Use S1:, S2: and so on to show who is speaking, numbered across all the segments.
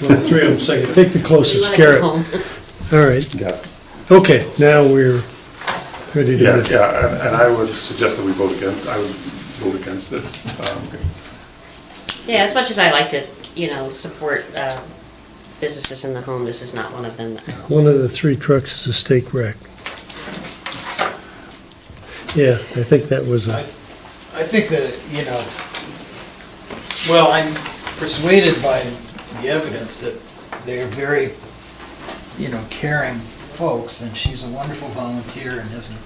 S1: Well, the three of them say it.
S2: Take the closest,
S3: Let it
S2: Garrett.
S3: go
S2: All
S3: home.
S2: right,
S4: Yeah,
S2: okay, now we're ready
S4: yeah,
S2: to,
S4: yeah, and- and I would suggest that we vote against, I would vote against this. Um,
S3: Yeah, as much as I like to, you know, support uh, businesses in the home, this is not one of them. that I-
S2: one of the three trucks is a steak rack. Yeah, I think that was a,
S5: I think that, you know, well, I'm persuaded by the evidence that they're very, you know, caring folks, and she's a wonderful volunteer and has a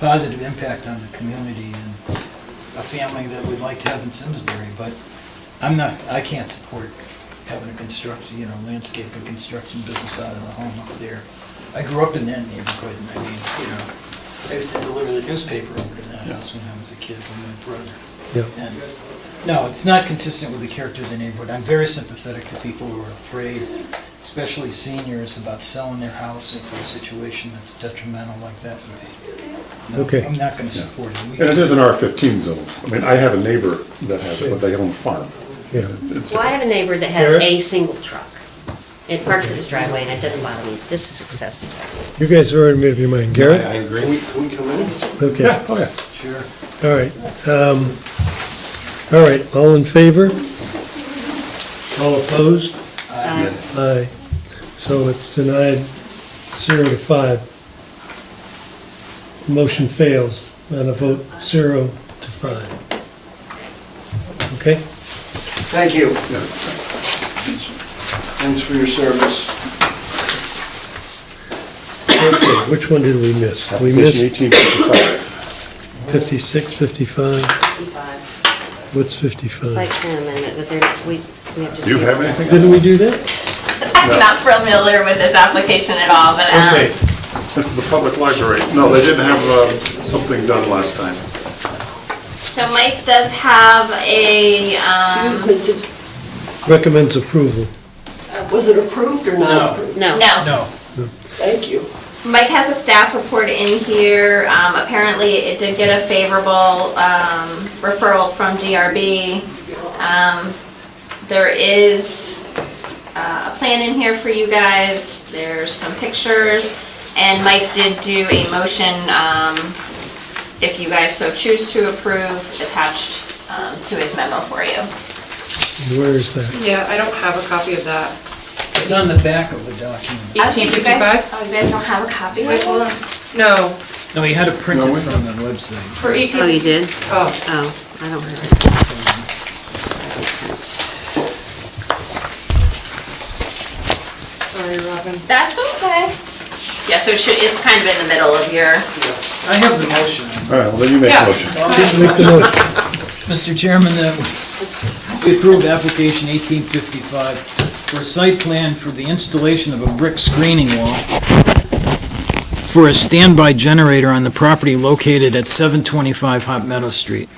S5: positive impact on the community and a family that we'd like to have in Simsbury, but I'm not, I can't support having a construct, you know, landscape and construction business out of the home up there. I grew up in that neighborhood, and I mean, you know, I used to deliver the newspaper over to that house when I was a kid with my brother.
S2: yeah,
S5: And, no, it's not consistent with the character of the neighborhood. I'm very sympathetic to people who are afraid, especially seniors, about selling their house into a situation that's detrimental like that would be. No,
S2: Okay.
S5: I'm not gonna support it. We-
S4: And it is an R fifteen zone. I mean, I have a neighbor that has it, but they own a farm.
S2: yeah.
S4: It's-
S3: Well, I have a neighbor that has
S2: Garrett?
S3: a single truck. It parks in his driveway and it doesn't bother me. This is excessive.
S2: You guys have already made up your mind, Garrett?
S6: agree. Can we, can we come in?
S2: Okay,
S4: Yeah, oh yeah.
S5: Sure.
S2: all right. Um, All right, all in favor? All opposed? Aye. So it's denied zero to five. Motion fails on a vote zero to five. Okay?
S6: Thank you. Thanks for your service.
S2: Okay, which one did we miss? We
S4: Application
S2: missed
S4: 1855.
S2: 56, 55, what's
S3: Site
S2: 55?
S3: plan amendment, but they're, we, we have to.
S4: Do you have anything?
S2: Didn't we do that?
S7: I'm not familiar with this application at all, but,
S2: Okay,
S7: um,
S4: This is the public library. No, they didn't have uh, something done last time.
S7: so Mike does have a, um,
S8: Excuse me, did- uh,
S2: recommends approval.
S8: was it approved or not approved?
S3: No.
S7: no.
S5: No,
S8: Thank you.
S7: Mike has a staff report in here. Um, apparently it did get a favorable, um, referral from DRB. Um, there is uh, a plan in here for you guys. There's some pictures. And Mike did do a motion, um, if you guys so choose to approve, attached, um, to his memo for you.
S2: Where is that?
S9: Yeah, I don't have a copy of that.
S5: it's on the back of the document.
S7: Oh, so you guys-
S9: 1855?
S7: Oh, you guys don't have a copy?
S9: Wait, hold on. No,
S5: No, he had it printed
S4: No, we-
S5: from the website.
S9: for
S3: Oh,
S9: 18,
S3: you did?
S9: oh,
S3: Oh, I don't have it.
S9: sorry, Robin.
S7: That's okay. Yeah, so it should, it's kind of in the middle of your,
S5: I have the motion.
S4: All right, well, then you make a
S9: Yeah.
S4: motion.
S2: Make the motion.
S5: Mr. Chairman, that we approve application 1855 for a site plan for the installation of a brick screening wall for a standby generator on the property located at 725 Hot Meadow Street.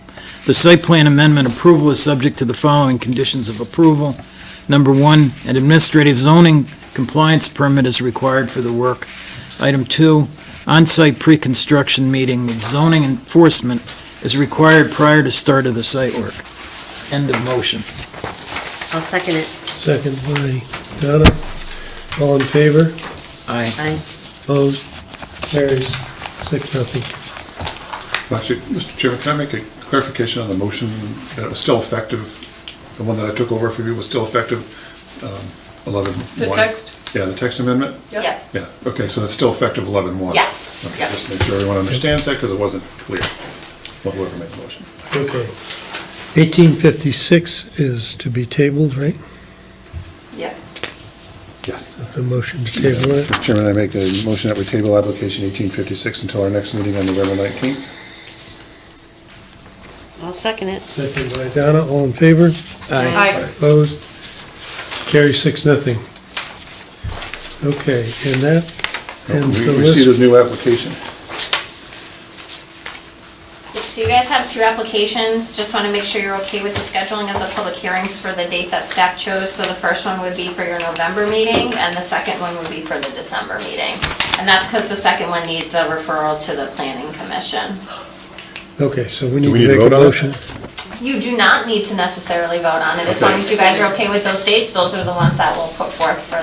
S5: The site plan amendment approval is subject to the following conditions of approval. Number one, an administrative zoning compliance permit is required for the work. Item two, on-site pre-construction meeting with zoning enforcement is required prior to start of the site work. End of motion.
S3: I'll second it.
S2: Second by Donna. All in favor?
S5: Aye.
S3: I,
S2: Opposed? Carries. Six, nothing.
S4: Actually, Mr. Chairman, can I make a clarification on the motion that it was still effective? The one that I took over for you was still effective, um, 11-1?
S9: The text?
S4: Yeah, the text amendment?
S7: yeah,
S4: Yeah, okay, so that's still effective 11-1?
S7: Yeah,
S4: Okay,
S7: yeah.
S4: just make sure everyone understands that, because it wasn't clear, Well, whoever made the motion.
S2: Okay. 1856 is to be tabled, right?
S7: yeah.
S4: Yes.
S2: The motion to table it.
S4: Mr. Chairman, I make a motion that we table application 1856 until our next meeting on November 19th.
S3: I'll second it.
S2: Second by Donna. All in favor?
S9: Oh. Aye.
S2: Opposed? Carry six, nothing. Okay, and that ends the
S4: Oh, We see the
S2: list.
S4: new application.
S7: So you guys have two applications, just want to make sure you're okay with the scheduling of the public hearings for the date that staff chose. So the first one would be for your November meeting, and the second one would be for the December meeting. And that's because the second one needs a referral to the planning commission.
S2: Okay, so we
S4: we
S2: need
S4: need to
S2: to make a
S4: vote on it?
S2: motion.
S7: You do not need to necessarily vote on it, as long as you guys are okay with those dates, those are the ones that we'll put forth for